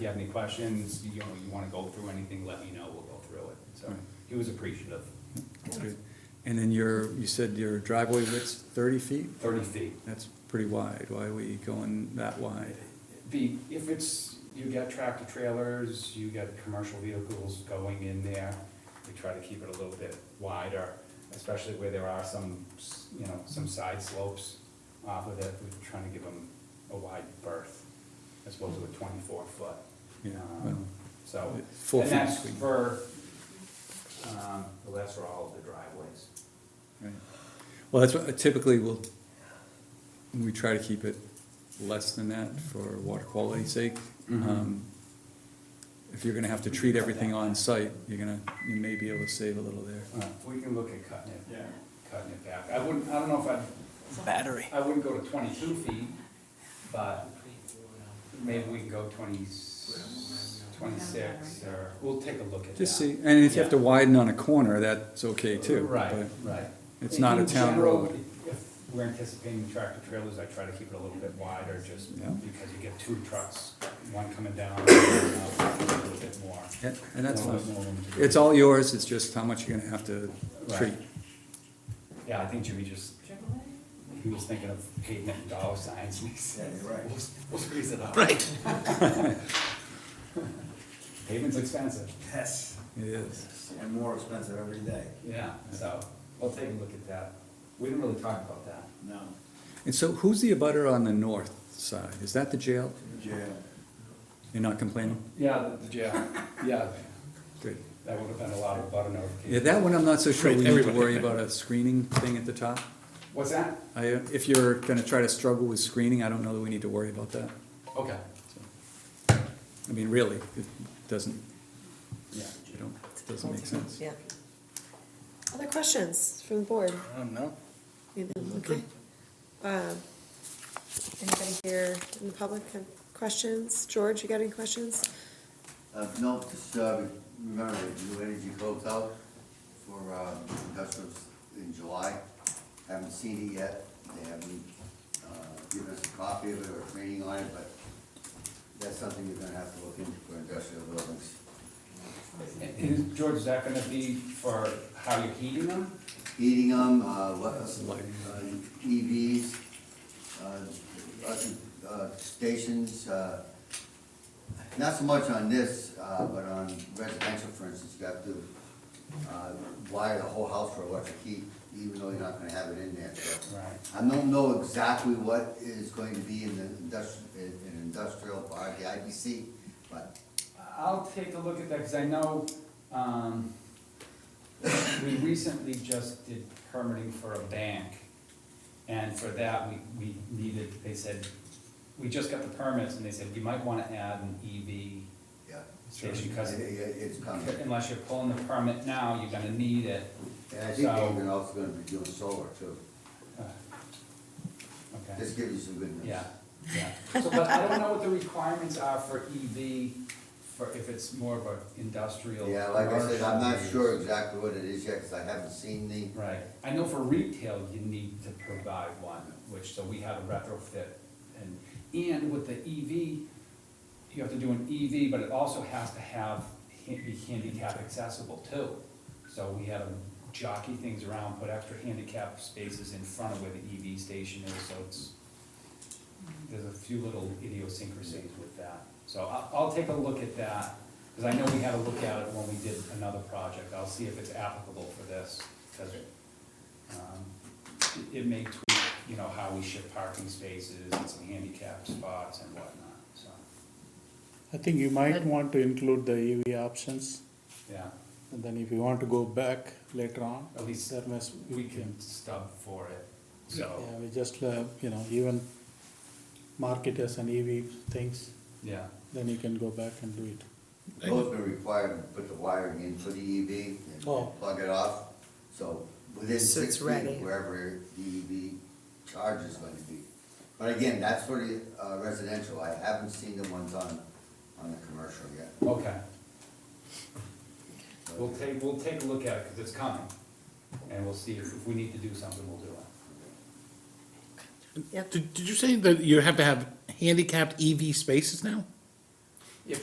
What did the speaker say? you have any questions, you know, you wanna go through anything, let me know, we'll go through it. So he was appreciative, That's good. And then your, you said your driveway width's thirty feet? thirty feet. That's pretty wide. Why are we going that wide? Be, if it's, you got tractor trailers, you got commercial vehicles going in there, we try to keep it a little bit wider, especially where there are some, s- you know, some side slopes off of it, we're trying to give them a wide berth, as opposed to a twenty-four foot. Yeah, Um, well, So, it- four and feet that's between. for, um, well, that's for all of the driveways. Right. Well, that's what typically we'll, we try to keep it less than that for water quality's sake. Mhm. Um, If you're gonna have to treat everything on site, you're gonna, you may be able to save a little there. Uh, We can look at cutting it, cutting it back. I wouldn't, I don't know if I'd, Battery. I wouldn't go to twenty-two feet, but maybe we can go 20 26 or, we'll take a look at that. Just see, and if you have to widen on a corner, that's okay too. Right, but- right. it's not a In town general, road. If we're anticipating tractor trailers, I try to keep it a little bit wider, just Yeah. because you get two trucks, one coming down, one coming up, a little bit more. Yeah, And that's a little fine. bit more room to do. It's all yours, it's just how much you're gonna have to Right. treat. Yeah, I think Jimmy just, he was thinking of pavement and dollar signs, and he said, we'll, we'll squeeze it out. Right. Pavement's expensive. Yes, It is. and more expensive every day. Yeah, so, we'll take a look at that. We didn't really talk about that. No. And so who's the abutter on the north side? Is that the jail? Jail. You're not complaining? Yeah, the jail, yeah, Good. that would have been a lot of butter notification. Yeah, that one, I'm not so sure we need to worry about a screening thing at the top. What's that? I, if you're gonna try to struggle with screening, I don't know that we need to worry about that. Okay. I mean, really, it doesn't, Yeah. you don't, it doesn't make sense. Yeah. Other questions from the board? No. Okay. Um, Anybody here in the public have questions? George, you got any questions? Uh, no, just, uh, remember, the new energy goes out for, um, industrials in July. Haven't seen it yet, they haven't, uh, given us a copy of it or training on it, but that's something you're gonna have to look into for industrial buildings. And- And George, is that gonna be for how you're heating them? Heating them, uh, what, uh, EVs, uh, uh, uh, stations, uh, not so much on this, uh, but on residential, for instance, you have to, uh, wire the whole house for electric heat, even though you're not gonna have it in there, so. Right. I don't know exactly what is going to be in the industrial, in in industrial, or the IBC, but I'll take a look at that, because I know, um, we recently just did permitting for a bank. And for that, we, we needed, they said, we just got the permits, and they said, you might wanna add an EV yeah. station, It- because it- It's coming. unless you're pulling the permit now, you're gonna need it. And I think So- they're also gonna be doing solar too. Uh, Okay. This gives you some good news. Yeah, yeah. So, but I don't know what the requirements are for EV, for, if it's more of a industrial. Yeah, like I said, I'm not commercial sure use. exactly what it is yet, cause I haven't seen the, Right, I know for retail, you need to provide one, which, so we had a retrofit, and, and with the EV, you have to do an EV, but it also has to have, ha- be handicap accessible too. So we had to jockey things around, put extra handicap spaces in front of where the EV station is, so it's, there's a few little idiosyncrasies with that. So I'll, I'll take a look at that, because I know we had a look at it when we did another project, I'll see if it's applicable for this, because it, it may tweak, you know, how we ship parking spaces and some handicap spots and whatnot, so, I think you might want to include the EV options, yeah. and then if you want to go back later on, At least there must, we can stub for it, so, yeah, we just, uh, you know, even market as an EV things, yeah. then you can go back and do it. those were required to put the wiring in for the EV and Oh. plug it off. So within So it's six ready. feet, wherever the EV charge is going to be. But again, that's for the uh, residential, I haven't seen the ones on, on the commercial yet. Okay, we'll take, we'll take a look at it, because it's coming, and we'll see if, if we need to do something, we'll do it. Yep. Did, did you say that you have to have handicapped EV E spaces now?